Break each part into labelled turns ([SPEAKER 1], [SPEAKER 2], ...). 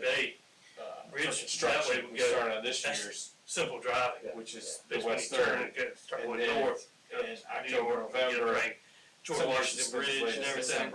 [SPEAKER 1] They,
[SPEAKER 2] uh,
[SPEAKER 1] Bridge, that way
[SPEAKER 2] construction
[SPEAKER 1] we
[SPEAKER 2] we
[SPEAKER 1] go-
[SPEAKER 2] started on this
[SPEAKER 1] that's-
[SPEAKER 2] year's,
[SPEAKER 1] simple driving.
[SPEAKER 2] which is the
[SPEAKER 1] That's when you
[SPEAKER 2] west
[SPEAKER 1] turn
[SPEAKER 2] third.
[SPEAKER 1] and go- Start
[SPEAKER 2] And
[SPEAKER 1] going
[SPEAKER 2] then
[SPEAKER 1] north. up to
[SPEAKER 2] in
[SPEAKER 1] New York,
[SPEAKER 2] October,
[SPEAKER 1] get a
[SPEAKER 2] November,
[SPEAKER 1] bank, George Washington Bridge and everything.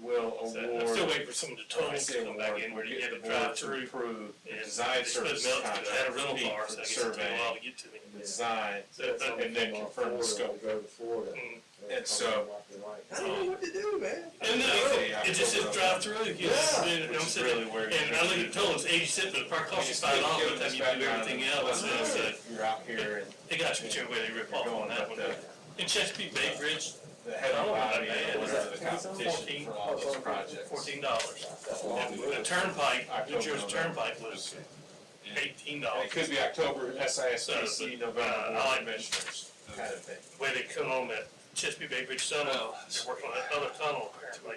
[SPEAKER 2] Will
[SPEAKER 1] So,
[SPEAKER 2] award.
[SPEAKER 1] I'm still waiting for some of the
[SPEAKER 2] I
[SPEAKER 1] tolls
[SPEAKER 2] say
[SPEAKER 1] to come back
[SPEAKER 2] award,
[SPEAKER 1] in where
[SPEAKER 2] we'll
[SPEAKER 1] you
[SPEAKER 2] get
[SPEAKER 1] have
[SPEAKER 2] the
[SPEAKER 1] a
[SPEAKER 2] board
[SPEAKER 1] drive
[SPEAKER 2] to
[SPEAKER 1] through.
[SPEAKER 2] approve the
[SPEAKER 1] and
[SPEAKER 2] design
[SPEAKER 1] they split
[SPEAKER 2] services
[SPEAKER 1] Milton, but I
[SPEAKER 2] contract.
[SPEAKER 1] had a rental
[SPEAKER 2] speak
[SPEAKER 1] car,
[SPEAKER 2] for
[SPEAKER 1] so
[SPEAKER 2] the
[SPEAKER 1] I guess it took a
[SPEAKER 2] survey,
[SPEAKER 1] while to get to me.
[SPEAKER 2] the Design,
[SPEAKER 1] So, but-
[SPEAKER 2] and then confirm the scope.
[SPEAKER 3] Go to Florida.
[SPEAKER 1] Mm.
[SPEAKER 2] And so-
[SPEAKER 1] I don't know what
[SPEAKER 3] to do, man.
[SPEAKER 1] And
[SPEAKER 2] Yeah,
[SPEAKER 1] then, oh, it just says
[SPEAKER 2] October.
[SPEAKER 1] drive through, you know,
[SPEAKER 3] Yeah.
[SPEAKER 1] and
[SPEAKER 2] Which
[SPEAKER 1] I'm
[SPEAKER 2] is
[SPEAKER 1] sitting,
[SPEAKER 2] really where. you-
[SPEAKER 1] and I look at the toll, it's eighty cents, but the park costs you five dollars, by the time you do everything else, so it's like,
[SPEAKER 2] You're out here and
[SPEAKER 1] they got you whichever way they
[SPEAKER 2] you're
[SPEAKER 1] rip off on
[SPEAKER 2] going
[SPEAKER 1] that
[SPEAKER 2] up
[SPEAKER 1] one. Oh,
[SPEAKER 2] the,
[SPEAKER 1] In Chesapeake Bay Bridge,
[SPEAKER 2] the head
[SPEAKER 1] I
[SPEAKER 2] of
[SPEAKER 1] don't know about
[SPEAKER 2] body
[SPEAKER 1] that.
[SPEAKER 2] and
[SPEAKER 1] Was
[SPEAKER 2] whatever
[SPEAKER 3] that
[SPEAKER 2] the competition
[SPEAKER 3] 2014?
[SPEAKER 2] for all these projects.
[SPEAKER 1] fourteen dollars.
[SPEAKER 3] That's a long
[SPEAKER 1] The
[SPEAKER 3] move.
[SPEAKER 1] turnpike, New Jersey Turnpike was
[SPEAKER 2] Yeah.
[SPEAKER 1] eighteen
[SPEAKER 2] And
[SPEAKER 1] dollars.
[SPEAKER 2] It could be October, SISBC,
[SPEAKER 1] So, but,
[SPEAKER 2] November,
[SPEAKER 1] uh, I
[SPEAKER 2] Board
[SPEAKER 1] like-
[SPEAKER 2] of Commissioners, kind of thing.
[SPEAKER 1] Way they come on that Chesapeake Bay Bridge tunnel, they're working on that other tunnel apparently.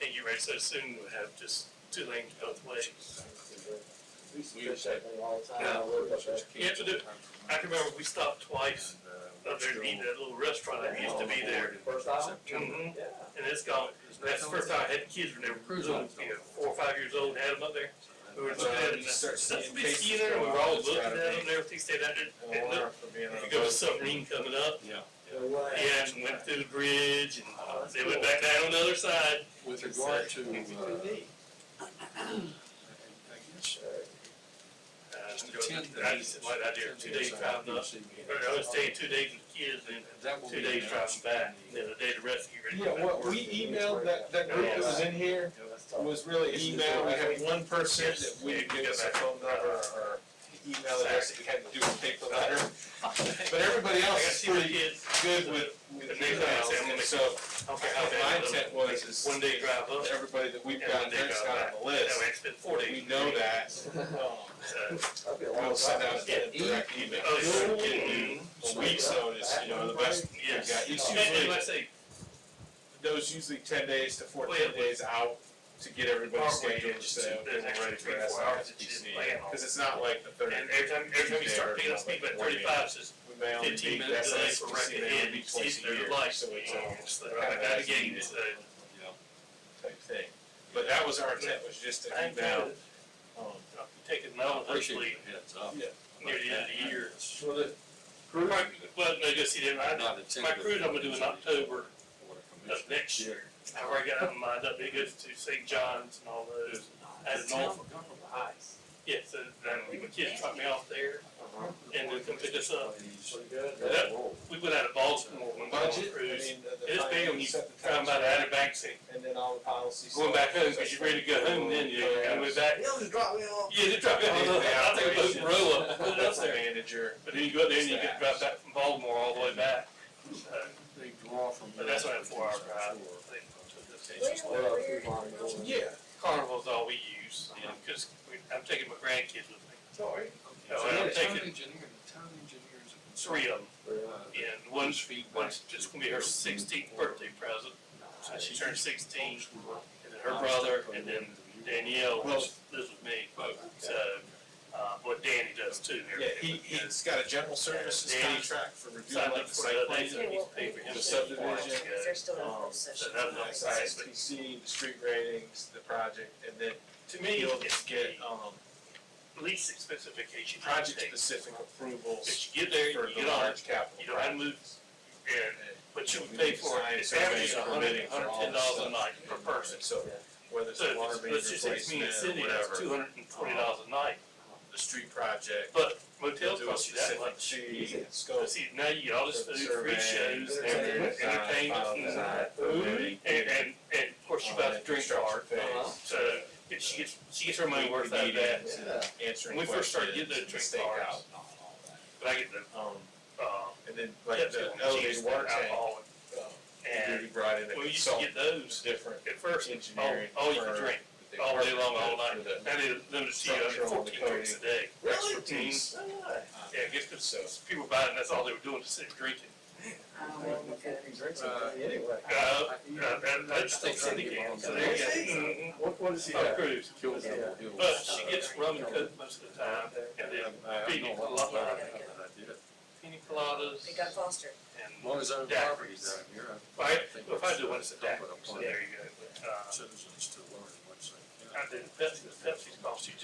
[SPEAKER 1] And you ready so soon we'll have just two lanes both ways.
[SPEAKER 3] We used to fish that thing all the time. I lived up there.
[SPEAKER 1] You have to do, I can remember we stopped twice up there to eat at that little restaurant that used to be there.
[SPEAKER 3] First island?
[SPEAKER 1] Mhm.
[SPEAKER 3] Yeah.
[SPEAKER 1] And it's gone. That's the first time I had kids when they were, little, you know, four or five years old, had them up there. We were looking at it, and that's a big ski there, and we were all looking at them and everything, stayed out there. And look, You go to submarine coming up,
[SPEAKER 3] No way.
[SPEAKER 1] yeah, and went through the bridge, and they went back down on the other side.
[SPEAKER 4] With regard to, uh,
[SPEAKER 3] It's pretty neat.
[SPEAKER 1] Uh,
[SPEAKER 4] ten days.
[SPEAKER 1] I just, why I did two days driving up, or I was staying two days with the kids, and
[SPEAKER 4] That will
[SPEAKER 1] two
[SPEAKER 4] be
[SPEAKER 1] days driving
[SPEAKER 4] announced.
[SPEAKER 1] back, and then a day to rest, and get ready.
[SPEAKER 2] Yeah, what we emailed, that, that group that was in here was really email, we had one person that we didn't get us a phone number or email address, we had to do a paper letter. But everybody
[SPEAKER 1] I got
[SPEAKER 2] else
[SPEAKER 1] to see
[SPEAKER 2] is
[SPEAKER 1] my
[SPEAKER 2] pretty
[SPEAKER 1] kids,
[SPEAKER 2] good with, with emails, and so
[SPEAKER 1] I don't care how
[SPEAKER 2] my
[SPEAKER 1] bad, it
[SPEAKER 2] intent was is
[SPEAKER 1] was. one day drive up, that
[SPEAKER 2] everybody that we've got that's got on the
[SPEAKER 1] way
[SPEAKER 2] list,
[SPEAKER 1] I spent four days.
[SPEAKER 2] we know that.
[SPEAKER 1] So,
[SPEAKER 3] That'd be a long
[SPEAKER 2] We'll send
[SPEAKER 3] time.
[SPEAKER 2] out a direct email.
[SPEAKER 1] Oh,
[SPEAKER 2] So
[SPEAKER 1] yeah.
[SPEAKER 2] we can do A week's notice, you know, the best,
[SPEAKER 1] Yes,
[SPEAKER 2] Yeah, it's
[SPEAKER 1] and, and
[SPEAKER 2] usually-
[SPEAKER 1] like I say,
[SPEAKER 2] those usually ten days to
[SPEAKER 1] Well,
[SPEAKER 2] fourteen
[SPEAKER 1] yeah.
[SPEAKER 2] days out to get everybody
[SPEAKER 1] Parkway,
[SPEAKER 2] scheduled,
[SPEAKER 1] it's
[SPEAKER 2] so
[SPEAKER 1] just-
[SPEAKER 2] we're
[SPEAKER 1] there's actually
[SPEAKER 2] ready for
[SPEAKER 1] three, four hours that you didn't plan
[SPEAKER 2] SIPC.
[SPEAKER 1] on.
[SPEAKER 2] Cause it's not like the third.
[SPEAKER 1] and every time, every time you start picking up speed by thirty-five, it's just
[SPEAKER 2] We may only
[SPEAKER 1] fifteen
[SPEAKER 2] meet the
[SPEAKER 1] minutes delay for right
[SPEAKER 2] SIPC, may only
[SPEAKER 1] ahead,
[SPEAKER 2] meet
[SPEAKER 1] it's
[SPEAKER 2] twice a
[SPEAKER 1] their
[SPEAKER 2] year,
[SPEAKER 1] life,
[SPEAKER 2] so
[SPEAKER 1] so
[SPEAKER 2] it's
[SPEAKER 1] it's,
[SPEAKER 2] all
[SPEAKER 1] it's like,
[SPEAKER 2] kind of
[SPEAKER 1] right out of
[SPEAKER 2] as
[SPEAKER 1] the gate,
[SPEAKER 2] needed
[SPEAKER 1] so.
[SPEAKER 2] type thing. But that was our intent, was just to
[SPEAKER 1] I ain't
[SPEAKER 2] email,
[SPEAKER 1] gonna-
[SPEAKER 2] um,
[SPEAKER 1] I'll be taking my own, hopefully,
[SPEAKER 4] Appreciate the heads up.
[SPEAKER 2] yeah.
[SPEAKER 1] near the end of the year.
[SPEAKER 3] Well, the
[SPEAKER 1] Well,
[SPEAKER 3] group,
[SPEAKER 1] no, go see them, I,
[SPEAKER 4] Not
[SPEAKER 1] my
[SPEAKER 4] intended.
[SPEAKER 1] cruise I'm gonna do in October of next
[SPEAKER 4] Yeah.
[SPEAKER 1] year. I've already got it in mind, up, it goes to St. John's and all those, as Norfolk. Yeah, so then my kids drop me off there, and then come pick us up.
[SPEAKER 3] pretty good.
[SPEAKER 1] That- We went out of Baltimore when we were on
[SPEAKER 2] Budget, I
[SPEAKER 1] cruise.
[SPEAKER 2] mean, the.
[SPEAKER 1] It's big when you
[SPEAKER 2] set the
[SPEAKER 1] Talking about
[SPEAKER 2] time,
[SPEAKER 1] Outer Banks and
[SPEAKER 2] And then all the policies.
[SPEAKER 1] going back home, because you're ready to go home, then you gotta go back.
[SPEAKER 3] They'll just drop me off.
[SPEAKER 1] Yeah, they drop you off, I think it was Rolla, put it up there.
[SPEAKER 2] Manager.
[SPEAKER 1] But then you go up there and you get dropped back from Baltimore all the way back. So,
[SPEAKER 4] They draw from.
[SPEAKER 1] But that's only a four-hour drive.
[SPEAKER 3] Well, if you wanna go in.
[SPEAKER 2] Yeah.
[SPEAKER 1] Carnival's all we use, you know, because I'm taking my grandkids with me,
[SPEAKER 3] Sorry.
[SPEAKER 1] No,
[SPEAKER 4] So
[SPEAKER 1] Oh, I'm
[SPEAKER 4] the town
[SPEAKER 1] taking-
[SPEAKER 4] engineer, the town Uh, engineer is a
[SPEAKER 1] three of them.
[SPEAKER 3] Yeah.
[SPEAKER 1] And one's, one's just gonna be her sixteenth birthday present,
[SPEAKER 4] Uh,
[SPEAKER 1] so she turned sixteen. And then her brother, and then Danielle, which lives with me, so, uh, what Danny does too.
[SPEAKER 2] Yeah, he, he's got a general services
[SPEAKER 1] Yeah, he's
[SPEAKER 2] contract for reviewing
[SPEAKER 1] Signed
[SPEAKER 2] like
[SPEAKER 1] up
[SPEAKER 2] the
[SPEAKER 1] for
[SPEAKER 2] site
[SPEAKER 1] the
[SPEAKER 2] plan.
[SPEAKER 1] things that he's paid for him.
[SPEAKER 2] The subdivision.
[SPEAKER 5] Because they're still in
[SPEAKER 2] Um,
[SPEAKER 5] closed session.
[SPEAKER 1] so that-
[SPEAKER 2] Nice, ISPC, the street ratings, the project, and then
[SPEAKER 1] To me,
[SPEAKER 2] you'll
[SPEAKER 1] it's
[SPEAKER 2] get,
[SPEAKER 1] get
[SPEAKER 2] um,
[SPEAKER 1] least expensive vacation you can
[SPEAKER 2] project
[SPEAKER 1] take.
[SPEAKER 2] specific approvals
[SPEAKER 1] But you get there,
[SPEAKER 2] for
[SPEAKER 1] you
[SPEAKER 2] the
[SPEAKER 1] get on,
[SPEAKER 2] large capital.
[SPEAKER 1] you know, I moved, and, but you pay for it, it's average a hundred, hundred and ten dollars a night per person.
[SPEAKER 2] So whether it's
[SPEAKER 1] So,
[SPEAKER 2] a water
[SPEAKER 1] if
[SPEAKER 2] main
[SPEAKER 1] it's- let's just say it's me and
[SPEAKER 2] replacement,
[SPEAKER 1] Cindy, that's two
[SPEAKER 2] whatever,
[SPEAKER 1] hundred and twenty dollars a night,
[SPEAKER 2] the street project.
[SPEAKER 1] but
[SPEAKER 2] they'll
[SPEAKER 1] motel
[SPEAKER 2] do a
[SPEAKER 1] costs you that
[SPEAKER 2] specific
[SPEAKER 1] much.
[SPEAKER 2] fee and
[SPEAKER 1] So
[SPEAKER 2] scope.
[SPEAKER 1] see, now you got all this
[SPEAKER 2] For the
[SPEAKER 1] food, free
[SPEAKER 2] survey,
[SPEAKER 1] shows,
[SPEAKER 3] entertainment,
[SPEAKER 1] everything, entertainment,
[SPEAKER 2] design,
[SPEAKER 1] and food, and, and, and of course you buy the drink card.
[SPEAKER 2] Uh-huh.
[SPEAKER 1] So, but she gets, she gets her money worth out of that,
[SPEAKER 2] Meetings.
[SPEAKER 3] Yeah.
[SPEAKER 2] Answering
[SPEAKER 1] When
[SPEAKER 2] questions.
[SPEAKER 1] we first started getting those drink
[SPEAKER 2] stakeout
[SPEAKER 1] cards.
[SPEAKER 2] and all that.
[SPEAKER 1] but I get the,
[SPEAKER 2] Um,
[SPEAKER 1] um,
[SPEAKER 2] and then like
[SPEAKER 1] tips
[SPEAKER 2] the
[SPEAKER 1] on cheese,
[SPEAKER 2] elevated
[SPEAKER 1] the
[SPEAKER 2] water tank,
[SPEAKER 1] alcohol.
[SPEAKER 2] um,
[SPEAKER 1] uh,
[SPEAKER 2] we
[SPEAKER 1] And
[SPEAKER 2] brought in a
[SPEAKER 1] we used to get
[SPEAKER 2] consultant,
[SPEAKER 1] those
[SPEAKER 2] different
[SPEAKER 1] at first, all,
[SPEAKER 2] engineering.
[SPEAKER 1] all you
[SPEAKER 2] firm
[SPEAKER 1] could drink,
[SPEAKER 2] that they
[SPEAKER 1] all day
[SPEAKER 2] partnered
[SPEAKER 1] long,
[SPEAKER 2] with
[SPEAKER 1] all night,
[SPEAKER 2] for the
[SPEAKER 1] and then limited to you,
[SPEAKER 2] Structural
[SPEAKER 1] fourteen drinks a day.
[SPEAKER 2] Expertise.
[SPEAKER 3] Oh,
[SPEAKER 1] Yeah,
[SPEAKER 2] Uh,
[SPEAKER 1] I guess 'cause people buying, that's all they were doing, just sitting drinking.
[SPEAKER 3] I don't want to get any drinks in there anyway.
[SPEAKER 1] Uh, uh, and that's still Cindy again, so there you go.
[SPEAKER 3] Mm-hmm. What, what is he
[SPEAKER 1] Mhm. Oh,
[SPEAKER 3] have?
[SPEAKER 1] cruise.
[SPEAKER 3] Kills them.
[SPEAKER 1] But she gets rum and coke most of the time, and then pina colada, pina coladas,
[SPEAKER 5] They got Foster.
[SPEAKER 1] and,
[SPEAKER 4] As long as our
[SPEAKER 1] Yeah.
[SPEAKER 4] property's down here.
[SPEAKER 1] if I,
[SPEAKER 4] think
[SPEAKER 1] if I do one, it's a
[SPEAKER 4] that's-
[SPEAKER 1] daiquiri, so there you go. Uh,
[SPEAKER 4] Citizens to learn what's.
[SPEAKER 1] I did Pepsi, Pepsi's cost you